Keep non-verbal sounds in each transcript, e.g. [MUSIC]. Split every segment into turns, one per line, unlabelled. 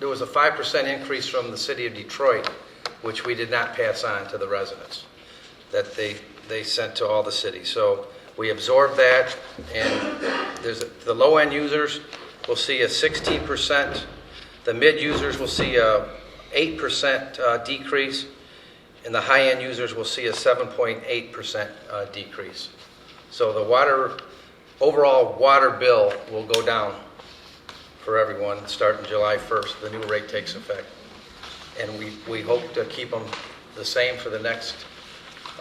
There was a 5% increase from the city of Detroit, which we did not pass on to the residents, that they, they sent to all the cities. So we absorbed that, and there's, the low-end users will see a 16%, the mid users will see a 8% uh, decrease, and the high-end users will see a 7.8% uh, decrease. So the water, overall water bill will go down for everyone, starting July 1st, the new rate takes effect. And we, we hope to keep them the same for the next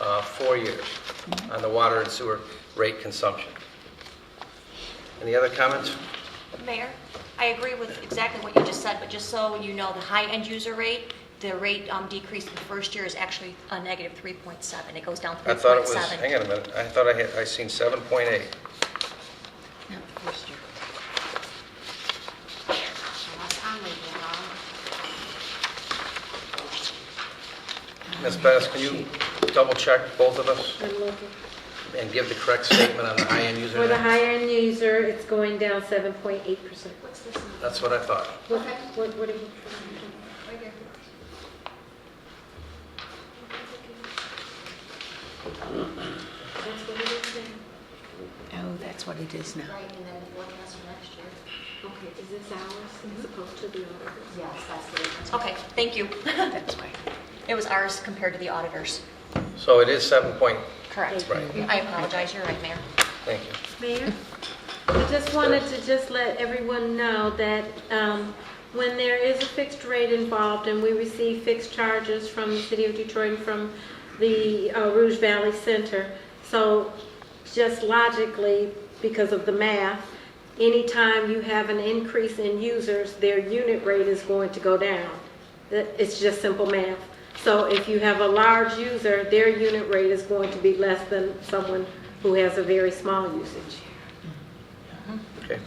uh, four years on the water and sewer rate consumption. Any other comments?
Mayor, I agree with exactly what you just said, but just so you know, the high-end user rate, the rate um, decrease in the first year is actually a negative 3.7. It goes down 3.7.
I thought it was, hang on a minute, I thought I had, I seen 7.8.
Not the first year.
Unless I'm reading it wrong.
Ms. Bettis, can you double-check both of us and give the correct statement on the high-end user?
For the
rate?
higher-end user, it's going down 7.8%.
What's this one?
That's what I thought.
What, what, what are you-
Right here.
that's what it is now?
Oh, that's what it is now.
Right, and then one has for next year.
Okay, is this ours as opposed to the others?
Yes, that's the difference.
Okay, thank you. [LAUGHS]
That's why.
It was ours compared to the auditors.
So it is 7 point,
Correct.
right,
I apologize, you're right, Mayor.
thank you.
Mayor, I just wanted to just let everyone know that um, when there is a fixed rate involved and we receive fixed charges from the city of Detroit and from the uh, Rouge Valley Center, so just logically, because of the math, anytime you have an increase in users, their unit rate is going to go down. That- It's just simple math. So if you have a large user, their unit rate is going to be less than someone who has a very small usage.
Okay.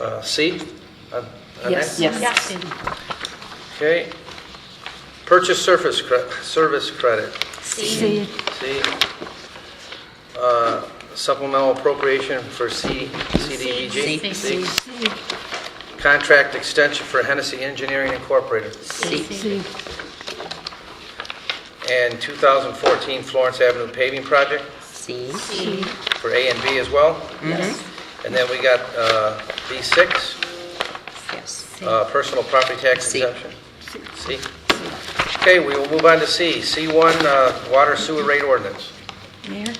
Uh, C? on- on
Yes.
that?
Yes.
Okay. Purchase surface, cre- service credit,
See,
C. Uh, Supplemental appropriation for C, CDBG. C. Contract extension for Hennessy Engineering Incorporated.
see,
And 2014 Florence Avenue paving project
see.
for A and B as well. Mm-hmm. And then we got uh, B6.
Yes.
Uh, Personal property tax
C.
exemption? C. Okay, we will move on to C. C1, uh, water sewer rate ordinance.
Mayor?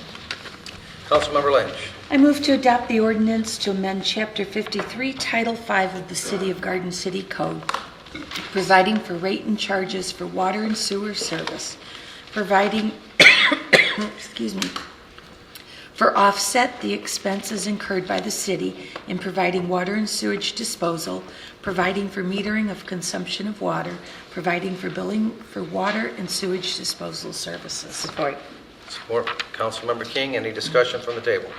Councilmember Lynch.
I move to adopt the ordinance to amend Chapter 53, Title 5 of the City of Garden City Code, providing for rate and charges for water and sewer service, providing, [COUGHS] excuse me, for offset the expenses incurred by the city in providing water and sewage disposal, providing for metering of consumption of water, providing for billing for water and sewage disposal services. Support.
Support. Councilmember King, any discussion from the table?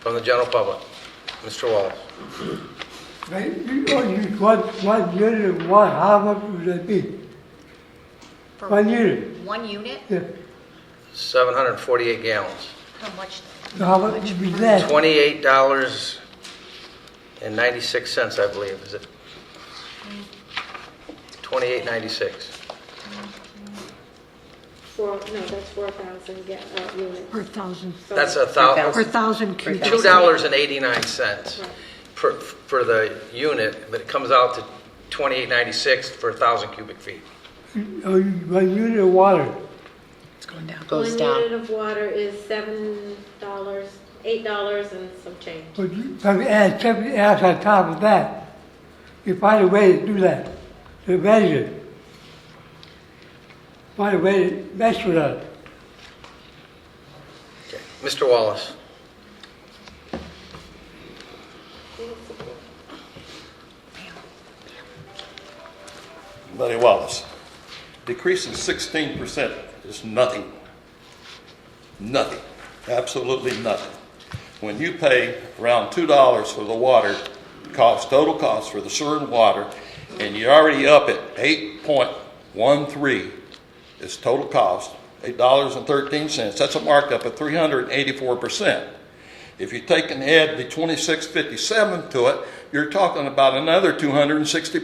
From the general public? Mr. Wallace?
Right, you only got one unit, one, how much would that be?
For
One unit,
One unit,
yeah,
748 gallons.
how much?
so how much would be that?
$28.96, I believe, is it? 28.96.
Four, no, that's 4,000 ga- uh, units.
Per thousand,
So-
That's a thousand.
per thousand cubic.
Two dollars and eighty-nine cents for, for the unit, but it comes out to twenty-eight ninety-six for a thousand cubic feet.
Oh, you- One unit of water,
It's going down.
One unit of water is $7, $8 and some change.
but you probably add something else on top of that. You find a way to do that, to measure it. Find a way to mess with it.
Okay. Mr. Wallace?
Lenny Wallace. Decrease in sixteen percent is nothing. Nothing. Absolutely nothing. When you pay around two dollars for the water cost, total cost for the sewer and water, and you're already up at eight point one three is total cost, eight dollars and thirteen cents, that's a markup of three hundred and eighty-four percent. If you take and add the twenty-six fifty-seven to it, you're talking about another 260